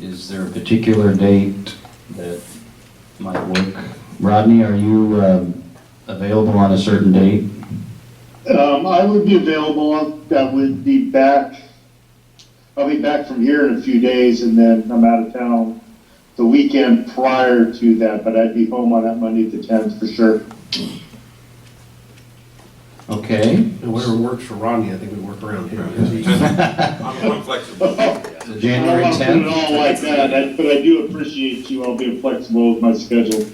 Is there a particular date that might work? Rodney, are you um, available on a certain date? Um, I would be available, I would be back, I'll be back from here in a few days, and then I'm out of town the weekend prior to that, but I'd be home on that Monday the tenth for sure. Okay, And Whatever works for Rodney, I think we work around here. I'm I'm flexible. so I don't January want to put it 10th? all like that, I- but I do appreciate you all being flexible with my schedule.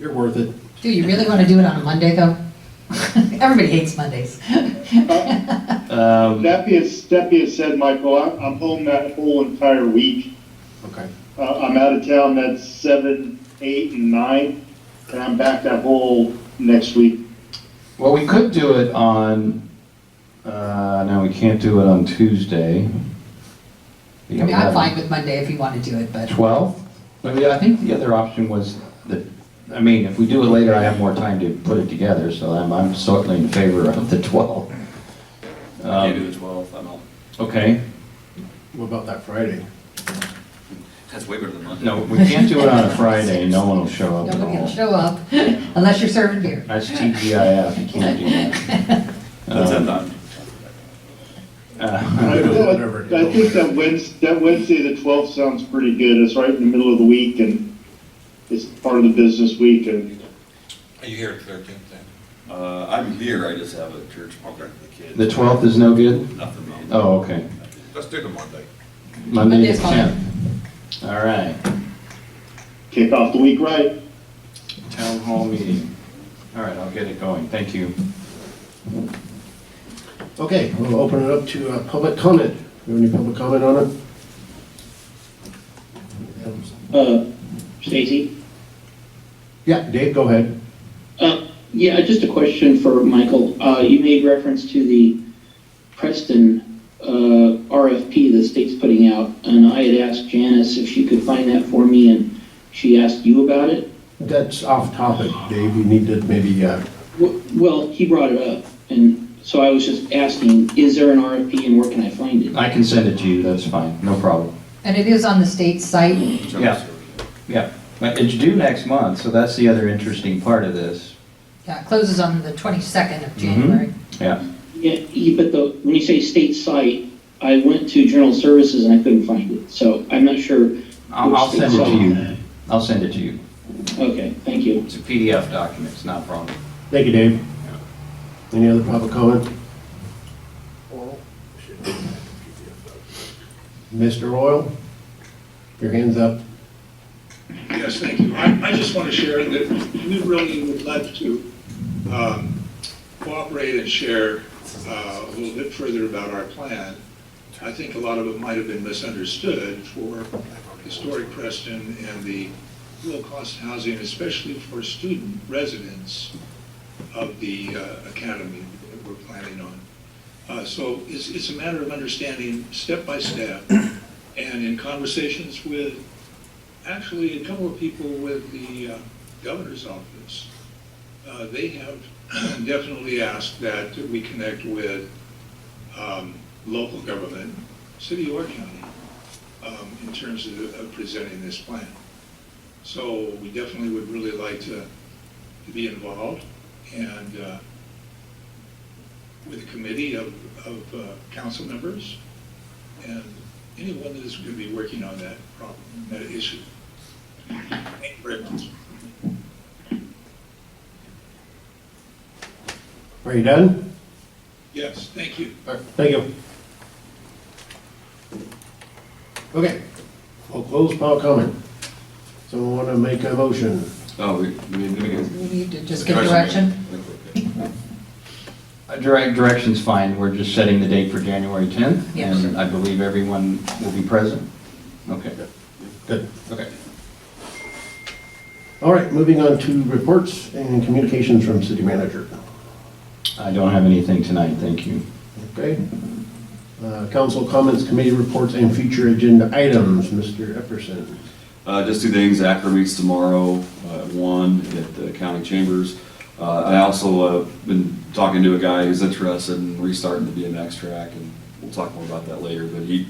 You're worth it. Do you really want to do it on a Monday, though? Everybody hates Mondays. Um, That being, that being said, Michael, I'm, I'm home that whole entire week. Okay. Uh, I'm out of town that seven, eight, and nine, and I'm back that whole next week. Well, we could do it on, uh, no, we can't do it on Tuesday. I mean, I'm fine with Monday if you want to do it, but 12? I mean, I think the other option was that, I mean, if we do it later, I have more time to put it together, so I'm, I'm certainly in favor of the 12. I can't do Um, the 12th, I'm out. Okay, What about that Friday? That's way better than Monday. no, we can't do it on a Friday, no one will show up at nobody will all. show up unless you're serving beer. That's TGIF, you can't do that. That's Um, that time. uh, I Whatever. I think that Wednesday, that Wednesday, the twelfth sounds pretty good. It's right in the middle of the week and it's part of the business week and Are you here at thirteenth then? Uh, I'm here, I just have a church program for the kids. The 12th is no good? Nothing wrong. Oh, okay. Let's do the Monday. Monday Monday's is fine. 10th. All right, kick off the week right. town hall meeting. All right, I'll get it going, thank you. Okay, we'll open it up to uh, public comment. You have any public comment on it? Uh, Stacy? Yeah, Dave, go ahead. Uh, Yeah, just a question for Michael. Uh, You made reference to the Preston uh, RFP the state's putting out, and I had asked Janice if she could find that for me, and she asked you about it. That's off topic, Dave. You need to maybe, uh, W- Well, he brought it up, and so I was just asking, is there an RFP and where can I find it? I can send it to you, that's fine, no problem. And it is on the state site. Yeah. Yeah, but it's due next month, so that's the other interesting part of this. Yeah, it closes on the 22nd of January. Yeah, Yeah, he- but the, when you say state site, I went to General Services and I couldn't find it, so I'm not sure. I'll, I'll send it to you. I'll send it to you. Okay, thank you. It's a PDF document, it's not a problem. thank you, Dave. Any other public comment? Mr. Oil, your hand's up. Yes, thank you. I, I just want to share that we really would like to um, cooperate and share uh, a little bit further about our plan. I think a lot of it might have been misunderstood for historic Preston and the low-cost housing, especially for student residents of the uh, academy that we're planning on. Uh, So it's, it's a matter of understanding step by step and in conversations with actually, a couple of people with the uh, governor's office, uh, they have definitely asked that we connect with um, local government, city or county, um, in terms of of presenting this plan. So we definitely would really like to to be involved and uh, with a committee of, of uh, council members and anyone that is going to be working on that problem, that issue. Thank you very much. Are you done? Yes, thank you. All right, Thank you. Okay, we'll close public comment. Someone want to make a motion? Oh, we, we need to get. We need to just get direction. Uh, Direct, direction's fine, we're just setting the date for January 10th. Yes. And I believe everyone will be present. Okay, Good. okay. All right, moving on to reports and communications from city manager. I don't have anything tonight, thank you. Okay? Uh, Council comments, committee reports, and future agenda items, Mr. Epperson. Uh, just two things, ACRA meets tomorrow, uh, one at the county chambers. Uh, I also, uh, been talking to a guy who's interested in restarting the BMX track, and we'll talk more about that later, but he,